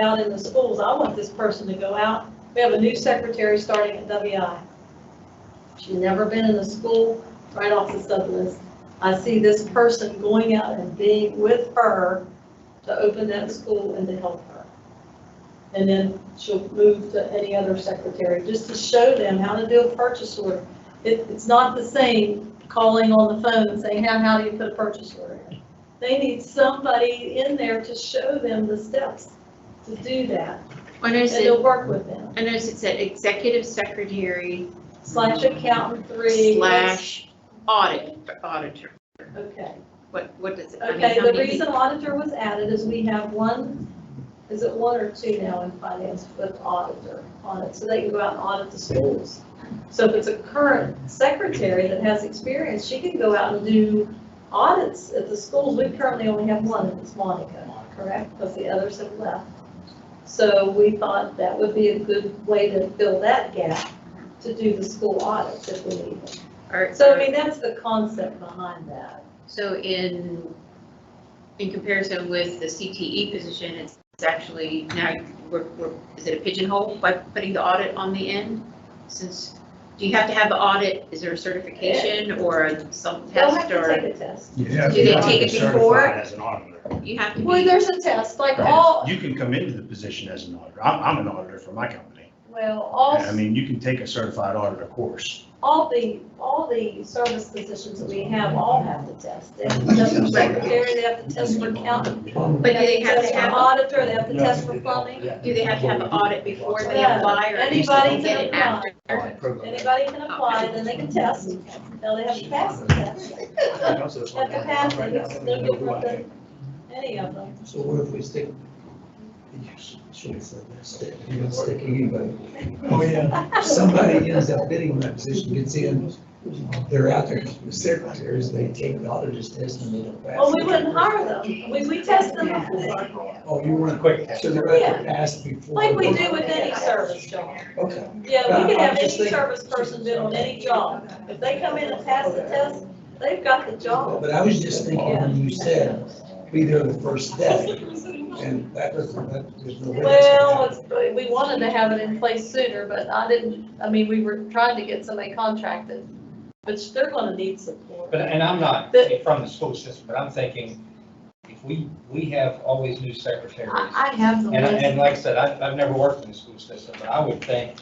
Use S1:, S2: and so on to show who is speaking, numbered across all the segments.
S1: out in the schools, I want this person to go out. We have a new secretary starting at WI. She's never been in a school, right off the sub list. I see this person going out and being with her to open that school and to help her. And then she'll move to any other secretary, just to show them how to do a purchase order. It, it's not the same calling on the phone and saying, how, how do you put a purchase order in? They need somebody in there to show them the steps to do that,
S2: I noticed
S1: and
S2: it,
S1: they'll work with them.
S2: I noticed it said executive secretary
S1: Slash accountant three.
S2: slash audit, auditor.
S1: Okay.
S2: What, what does it? I mean,
S1: Okay,
S2: how
S1: the
S2: many-
S1: reason auditor was added is we have one, is it one or two now in finance with auditor on it, so they can go out and audit the schools. So if it's a current secretary that has experience, she can go out and do audits at the schools. We currently only have one, and it's Monica, correct? Because the others have left. So we thought that would be a good way to fill that gap, to do the school audits if we need them.
S2: or-
S1: So I mean, that's the concept behind that.
S2: So in, in comparison with the CTE position, it's it's actually now, we're, we're, is it a pigeonhole by putting the audit on the end? Since, do you have to have the audit, is there a certification or some
S1: They'll have
S2: test
S1: to take
S2: or?
S1: a test.
S3: You have
S2: Do they
S3: to be
S2: take it before?
S3: certified As an auditor.
S2: You have to
S1: Well,
S2: be,
S1: there's a test, like all,
S3: And You can come into the position as an auditor. I'm, I'm an auditor for my company.
S1: well, all,
S3: And I mean, you can take a certified auditor course.
S1: all the, all the service positions that we have all have to test. They have to test for secretary, they have to test for accountant.
S2: but do they have
S1: test
S2: to
S1: for
S2: have,
S1: Auditor, they have to test for plumbing.
S2: do they have to have the audit before they
S1: Yeah.
S2: apply or?
S1: Anybody
S2: get
S1: can
S2: it after?
S1: apply, anybody can apply, then they can test. Now they have to pass the test. Have to pass it, it's no different than any of them.
S4: So what if we stick? Should have said that, stick, you don't stick anybody.
S5: Oh, yeah.
S4: Somebody ends up bidding when that position, gets in, they're out there, the secretaries, they take the auditor's test and they don't pass.
S1: Well, we
S4: it.
S1: wouldn't hire them. We, we test them before,
S4: Oh, you want quick, so they're out there passed before.
S1: like we do with any service job.
S4: Okay.
S1: Yeah, we can have
S4: I'm
S1: any
S4: just thinking-
S1: service person bid on any job. If they come in and pass the test, they've got the job.
S4: But I was just thinking, when you said, be there the first day, and that was, that, there's no way. that's gonna
S1: Well,
S4: happen.
S1: it's, we wanted to have it in place sooner, but I didn't, I mean, we were trying to get somebody contracted, which they're gonna need support.
S5: But, and I'm not
S1: But-
S5: from the school system, but I'm thinking, if we, we have always new secretaries.
S1: I, I have the
S5: And, I-
S1: list.
S5: and like I said, I've, I've never worked in the school system, but I would think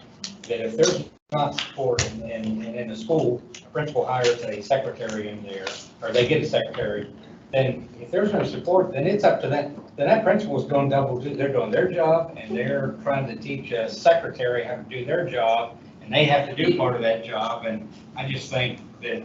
S5: that if there's not support in, in, in the school, a principal hires a secretary in there, or they get a secretary, then if there's no support, then it's up to that, then that principal's going double, du- they're doing their job, and they're trying to teach a secretary how to do their job, and they have to do part of that job, and I just think that,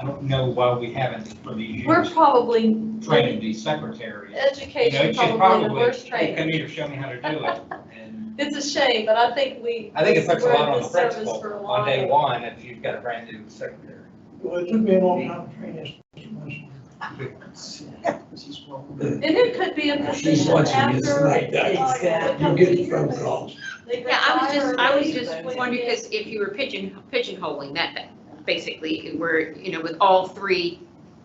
S5: I don't know why we haven't, for these
S1: We're
S5: years,
S1: probably,
S5: trained these secretaries. You know,
S1: education
S5: it should
S1: probably the
S5: probably,
S1: worst
S5: hey,
S1: training.
S5: come here, show me how to do it. And
S1: It's a shame, but I think we.
S5: I think it puts a
S1: we're in
S5: lot on the
S1: this service
S5: principal
S1: for a
S5: on day
S1: while.
S5: one if you've got a brand new secretary.
S6: Well, it took me a long time to train this.
S1: And it could be a
S4: She's
S1: position
S4: watching this
S1: after.
S4: right now, you're getting phone calls.
S2: Yeah, I was just, I was just wondering, because if you were pigeon, pigeonholing that, that basically, we're, you know, with all three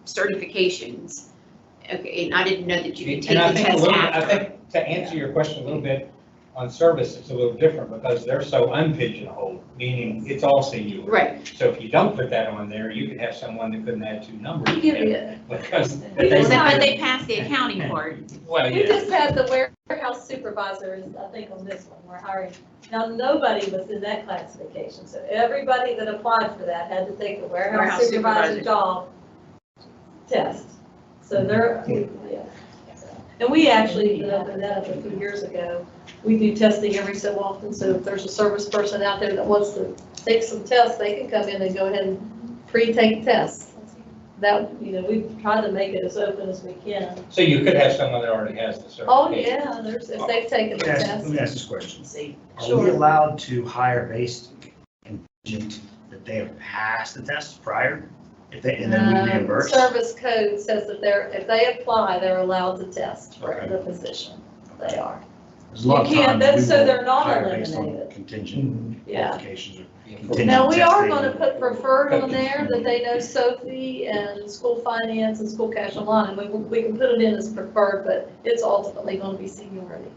S2: certifications. Okay, and I didn't know that you could take
S5: And I
S2: the
S5: think a
S2: test
S5: little, I
S2: after.
S5: think, to answer your question a little bit, on service, it's a little different because they're so unpigeonholed, meaning it's all senior.
S2: Right,
S5: So if you don't put that on there, you could have someone that couldn't add two numbers.
S1: Give it.
S5: Because. but
S1: They
S2: but
S1: were hired.
S2: they passed the accounting part.
S5: Well,
S1: We
S5: yeah.
S1: just had the warehouse supervisor is, I think, on this one, we're hiring. Now, nobody was in that classification, so everybody that applied for that had to take the warehouse
S2: Warehouse
S1: supervisor
S2: supervisor.
S1: job test. So they're, yeah. And we actually even opened that up a few years ago. We do testing every so often, so if there's a service person out there that wants to take some tests, they can come in and go ahead and pre-take tests. That, you know, we try to make it as open as we can.
S5: So you could have someone that already has the certification.
S1: Oh, yeah, there's, if they've taken the
S3: Let me ask- let
S1: test.
S3: me ask this question. Are we
S1: Sure.
S3: allowed to hire based contingent that they have passed the test prior? If they, and then we
S1: Um,
S3: reimburse?
S1: Service code says that they're, if they apply, they're allowed to test for
S3: Okay.
S1: the position. They are.
S3: There's a lot of
S1: You can't,
S3: times we
S1: that's so
S3: will
S1: they're not
S3: hire based on
S1: eliminated.
S3: Contingent
S1: Yeah.
S3: qualifications or
S5: Yeah.
S3: contingent.
S1: Now, we are
S3: testing.
S1: going to put preferred on there, that they know Sophie and school finance and school cash online. We, we can put it in as preferred, but it's ultimately going to be seniority.